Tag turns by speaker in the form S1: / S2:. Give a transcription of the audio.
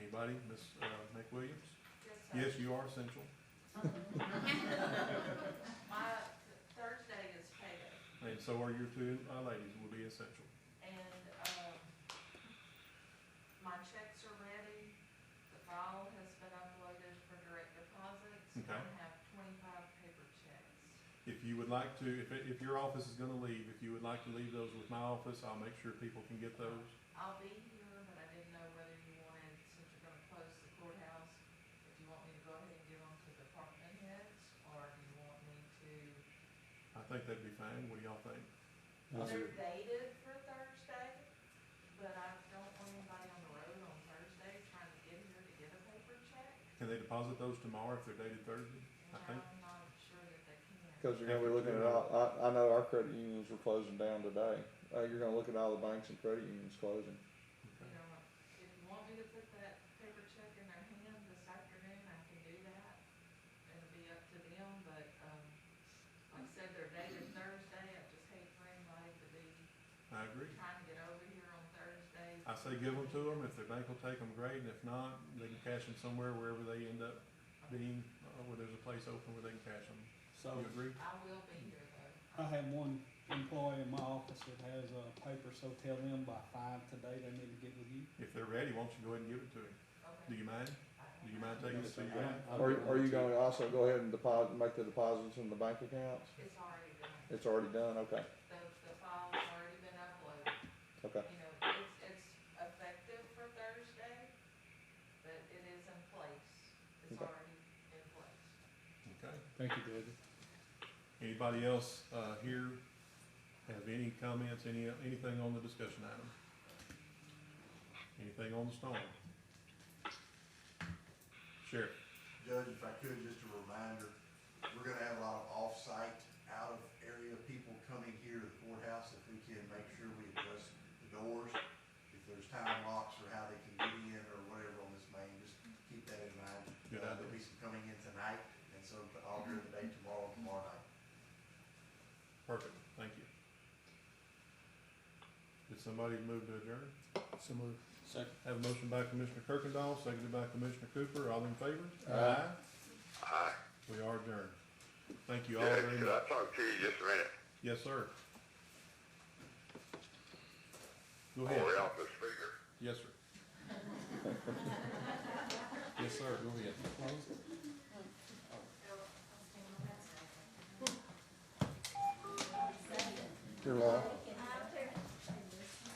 S1: Anybody? Ms. uh, McWilliams?
S2: Yes,
S1: Yes, you are essential.
S2: sir. My, Thursday is payday,
S1: And so are your two uh, ladies will be essential.
S2: and, um, my checks are ready, the file has been uploaded for direct deposits. and
S1: Okay.
S2: I have twenty-five paper checks.
S1: If you would like to, if, if your office is gonna leave, if you would like to leave those with my office, I'll make sure people can get those.
S2: I'll be here, but I didn't know whether you wanted, since you're gonna close the courthouse, if you want me to go ahead and give them to department heads, or if you want me to,
S1: I think that'd be fine. What do y'all think?
S2: they're dated for Thursday, but I don't want anybody on the road on Thursday trying to get here to get a paper check.
S1: Can they deposit those tomorrow if they're dated Thursday?
S2: And
S1: I think-
S2: I'm not sure that they can.
S3: Cause you're gonna be looking at all, I, I know our credit unions were closing down today. Uh, you're gonna look at all the banks and credit unions closing.
S2: You know, if you want me to put that paper check in their hand this afternoon, I can do that. It'll be up to them, but, um, like I said, their date is Thursday, I just hate for anybody to be
S1: I agree.
S2: trying to get over here on Thursday.
S1: I say give them to them. If their bank will take them, great. And if not, they can cash them somewhere wherever they end up being, uh, where there's a place open where they can cash them.
S4: So
S1: You agree?
S2: I will be here though.
S4: I have one employee in my office that has a paper, so tell them by five today they need to get with you.
S1: If they're ready, why don't you go ahead and give it to them? Do
S2: Okay.
S1: you mind?
S2: I-
S1: Do you mind taking this to your bank?
S3: Are, are you gonna also go ahead and deposit, make the deposits in the bank accounts?
S2: It's already done.
S3: It's already done, okay,
S2: The, the file's already been uploaded.
S3: okay.
S2: you know, it's, it's effective for Thursday, but it is in place, it's
S3: Okay.
S2: already in place.
S1: Okay.
S4: Thank you, David.
S1: Anybody else, uh, here have any comments, any, anything on the discussion item? Anything on the storm? Sheriff,
S5: Judge, if I could, just a reminder, we're gonna have a lot of off-site, out-of-area people coming here to the courthouse. If we can make sure we adjust the doors, if there's time locks or how they can get in or whatever on this main, just keep that in mind.
S1: Good
S5: Uh,
S1: idea.
S5: There'll be some coming in tonight, and so all during the day tomorrow, tomorrow night.
S1: perfect, thank you. Did somebody move to adjourn?
S4: So move. Second.
S1: Have a motion by Commissioner Kirkendall, seconded by Commissioner Cooper, all in favor?
S3: Aye.
S6: Hi.
S1: We are adjourned. Thank you all
S6: Yeah,
S1: very
S6: could I
S1: much.
S6: talk to you just a minute?
S1: Yes, sir. Go ahead.
S6: Or off the speaker?
S1: Yes, sir. Yes, sir, go ahead.
S3: You're live.